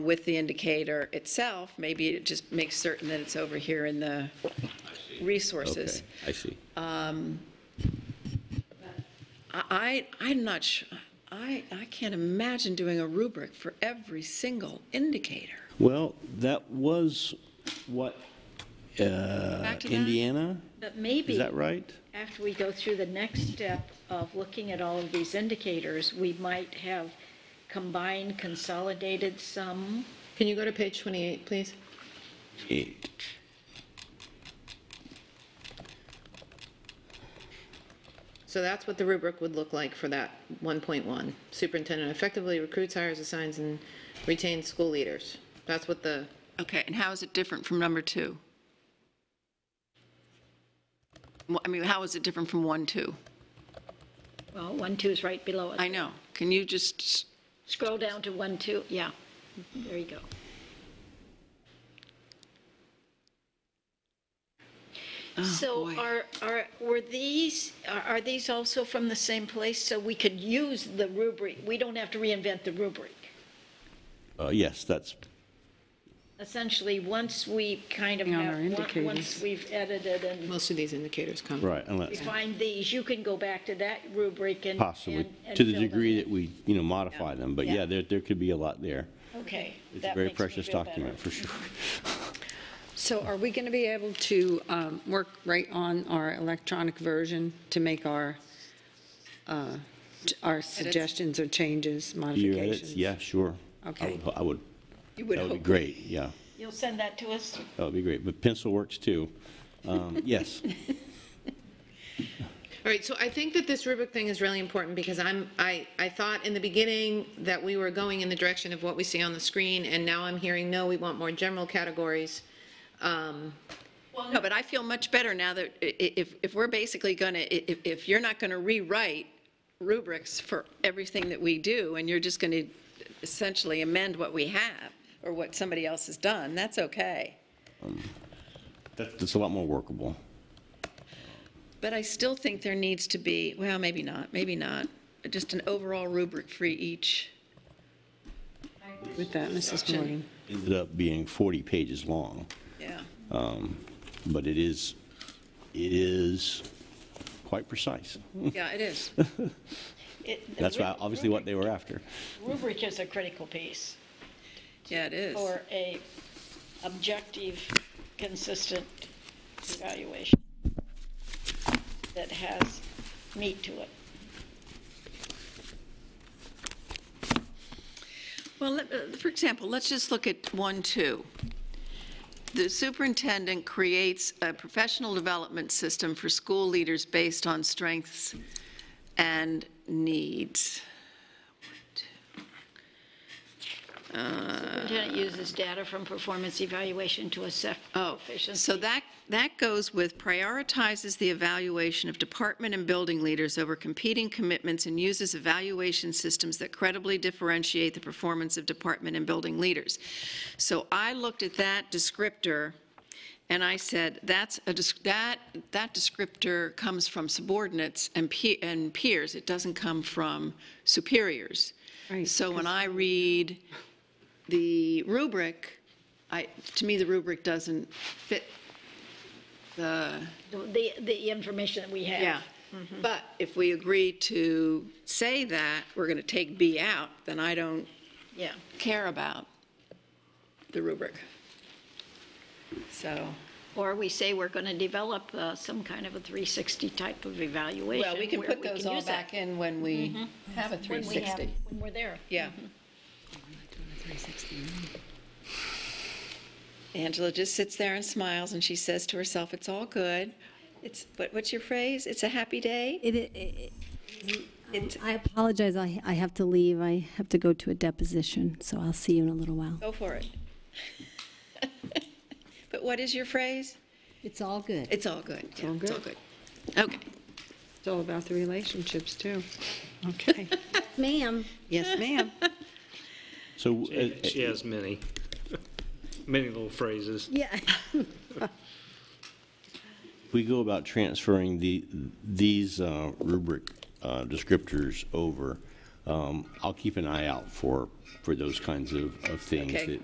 with the indicator itself, maybe it just makes certain that it's over here in the resources. Okay, I see. Uh, I, I- I'm not sure, I, I can't imagine doing a rubric for every single indicator. Well, that was what, uh, Back to that? Indiana, But is maybe, that right? after we go through the next step of looking at all of these indicators, we might have combined, consolidated some. Can you go to page 28, please? Eight. So that's what the rubric would look like for that 1.1. Superintendent effectively recruits, hires, assigns, and retains school leaders. That's what the, Okay, and how is it different from number two? Well, I mean, how is it different from one, two? Well, one, two is right below I it. know, can you just, Scroll down to one, two, yeah, there you go. So Oh, boy. are, are, were these, are are these also from the same place? So we could use the rubric, we don't have to reinvent the rubric. Uh, yes, that's, Essentially, once we kind of Hang on, have, our on- indicators. once we've edited and most of these indicators come. right, unless, find these, you can go back to that rubric and. possibly, and- and to the fill them degree in. that we, you know, modify them, but Yeah. yeah, there, there could be a lot there. Okay. It's a that very makes me precious feel better. document, for sure. So are we going to be able to um, work right on our electronic version to make our, uh, t- our suggestions or changes, Your modifications? edits, yeah, sure. I Okay. would- I would, you would that would be hope, great, yeah, You'll send that to us? that would be great, but pencil works too. Um, Yes, All right, so I think that this rubric thing is really important because I'm, I, I thought in the beginning that we were going in the direction of what we see on the screen, and now I'm hearing, no, we want more general categories. Um, no, but I feel much better now that i- i- if, if we're basically going to, if, if you're not going to rewrite rubrics for everything that we do, and you're just going to essentially amend what we have, or what somebody else has done, that's okay. that's, that's a lot more workable. But I still think there needs to be, well, maybe not, maybe not, just an overall rubric for each. With that, Mrs. Morgan? Ended up being 40 pages long. Yeah. but it is, it is quite precise. Yeah, it is. It- the That's why, rub- obviously what they were after. Rubric is a critical piece Yeah, it is. for a objective, consistent evaluation that has meat to it. Well, let- uh, for example, let's just look at one, two. The superintendent creates a professional development system for school leaders based on strengths and needs. Superintendent uses data from performance evaluation to assess Oh, proficiency. so that, that goes with prioritizes the evaluation of department and building leaders over competing commitments and uses evaluation systems that credibly differentiate the performance of department and building leaders. So I looked at that descriptor, and I said, that's a, desc- that, that descriptor comes from subordinates and pe- and peers. It doesn't come from superiors. Right, So when I read the rubric, I, to me, the rubric doesn't fit the, The, the information that we have. yeah. But if we agree to say that we're going to take B out, then I don't Yeah. care about the rubric. So, Or we say we're going to develop uh, some kind of a 360 type of evaluation. well, we can where put those all use that back in when we have a When we have, 360. when we're there. Mm-hmm. Yeah. Mm-hmm. Angela just sits there and smiles, and she says to herself, "It's all good." It's, what, what's your phrase? It's a happy day? It, it- it, it, I apologize, I, I have to leave, I have to go to a deposition, so I'll see you in a little while. Go for it. But what is your phrase? It's all good. It's all good. It's all It's all good. Okay. It's all about the relationships, too. Okay. Ma'am. Yes, ma'am. So, uh, She- She has many, many little phrases. Yeah. we go about transferring the, these uh, rubric uh, descriptors over. um, I'll keep an eye out for, for those kinds of, of things Okay. that